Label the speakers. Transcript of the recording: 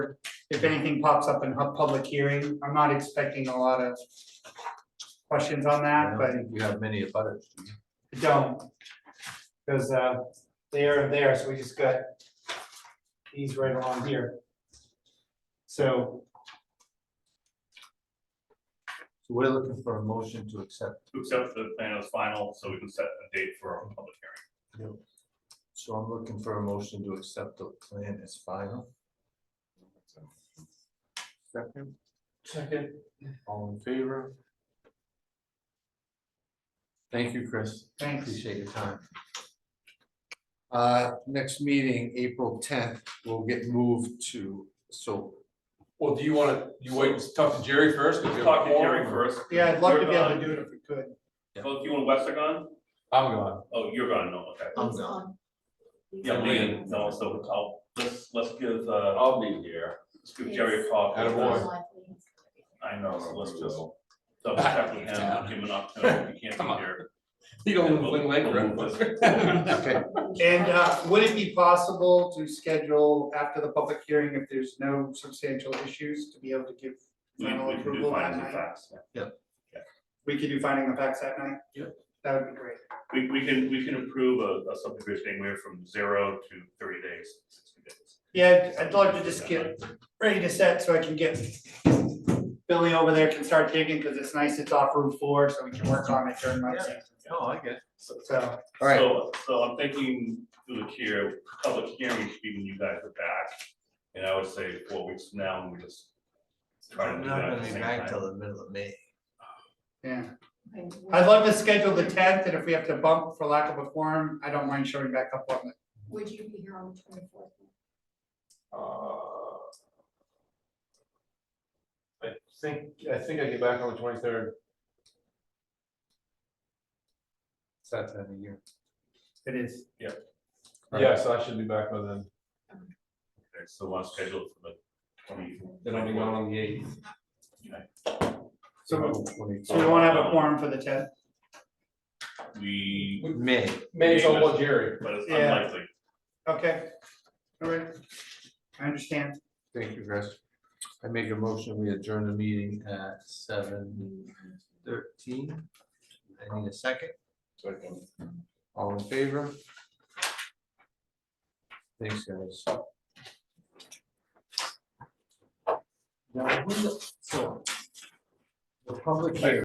Speaker 1: if anything pops up in a public hearing, I'm not expecting a lot of questions on
Speaker 2: I
Speaker 1: that,
Speaker 2: don't
Speaker 1: but
Speaker 2: think you have many abutters. do you?
Speaker 1: don't. Cause uh, they are there, so we just got these right along here. So
Speaker 2: So we're looking for a motion to accept.
Speaker 3: to accept the plan as final, so we can set a date for a public hearing.
Speaker 2: So I'm looking for a motion to accept the plan as final. Second,
Speaker 1: second,
Speaker 2: all in favor? Thank you, Chris.
Speaker 1: thanks,
Speaker 2: Appreciate your time. Uh, next meeting, April tenth, will get moved to, so
Speaker 4: Well, do you wanna, you wait, and talk to Jerry first? 'cause you have a
Speaker 3: Talk to Jerry
Speaker 4: forum, or-
Speaker 3: first.
Speaker 1: yeah, I'd love to be
Speaker 3: You're
Speaker 1: able to
Speaker 3: gone.
Speaker 1: do it if we could,
Speaker 3: Both you and Wes are gone?
Speaker 4: I'm gone.
Speaker 3: Oh, you're gone, no, okay.
Speaker 2: I'm
Speaker 5: He's
Speaker 2: gone.
Speaker 5: on. He's
Speaker 3: Yeah,
Speaker 5: on.
Speaker 3: Lean, no, so I'll, let's, let's give, uh. I'll be here. Let's give Jerry a call.
Speaker 4: Atta boy.
Speaker 3: I know, so let's just double check with him, give him an opportunity, if he
Speaker 4: Come
Speaker 3: can't
Speaker 4: on.
Speaker 3: be here.
Speaker 4: You
Speaker 3: Yeah,
Speaker 4: don't
Speaker 3: we'll-
Speaker 4: win Lake
Speaker 3: we'll
Speaker 4: Road.
Speaker 3: move this.
Speaker 2: Okay,
Speaker 1: and uh, would it be possible to schedule after the public hearing if there's no substantial issues to be able to give
Speaker 3: We,
Speaker 1: final
Speaker 3: we can do
Speaker 1: approval that
Speaker 3: findings and
Speaker 1: night?
Speaker 3: facts.
Speaker 1: We could do finding the facts that night?
Speaker 2: Yeah.
Speaker 1: That would be great,
Speaker 3: We, we can, we can approve a, a subdivision anywhere from zero to thirty days, sixty days.
Speaker 1: yeah, I'd I'd love to just get ready to set so I can get Billy over there can start digging, because it's nice, it's off Route four, so we can work on it during my season.
Speaker 2: no, I get it.
Speaker 1: So,
Speaker 2: All right.
Speaker 3: So, so I'm thinking through the chair, public hearing should be when you guys are back. And I would say four weeks from now, and we just try to
Speaker 2: I'm
Speaker 3: do
Speaker 2: not
Speaker 3: that
Speaker 2: gonna
Speaker 3: at the
Speaker 2: be
Speaker 3: same
Speaker 2: back
Speaker 3: time.
Speaker 2: till the middle of May.
Speaker 1: yeah,
Speaker 5: Okay,
Speaker 1: I'd
Speaker 5: would-
Speaker 1: love to schedule the tenth, and if we have to bump for lack of a forum, I don't mind showing back up on it.
Speaker 5: Would you be here on the twenty-fourth?
Speaker 4: Uh, I think, I think I get back on the twenty-third.
Speaker 2: It's that time of year.
Speaker 1: It is,
Speaker 2: Right.
Speaker 4: Yeah, so I should be back by then.
Speaker 3: Okay, So I'll schedule it for the twenty.
Speaker 4: Then I'll be gone on the eighth.
Speaker 1: so,
Speaker 2: Twenty-
Speaker 1: so we won't have a forum for the tenth,
Speaker 3: We,
Speaker 2: May,
Speaker 4: Maybe it's all about Jerry.
Speaker 3: but it's
Speaker 1: Yeah.
Speaker 3: unlikely.
Speaker 1: okay? All right, I understand,
Speaker 2: thank you, Chris. I make a motion, we adjourn the meeting at seven thirteen. I need a second, all in favor? Thanks, guys. Now, when the- so, The public hearing.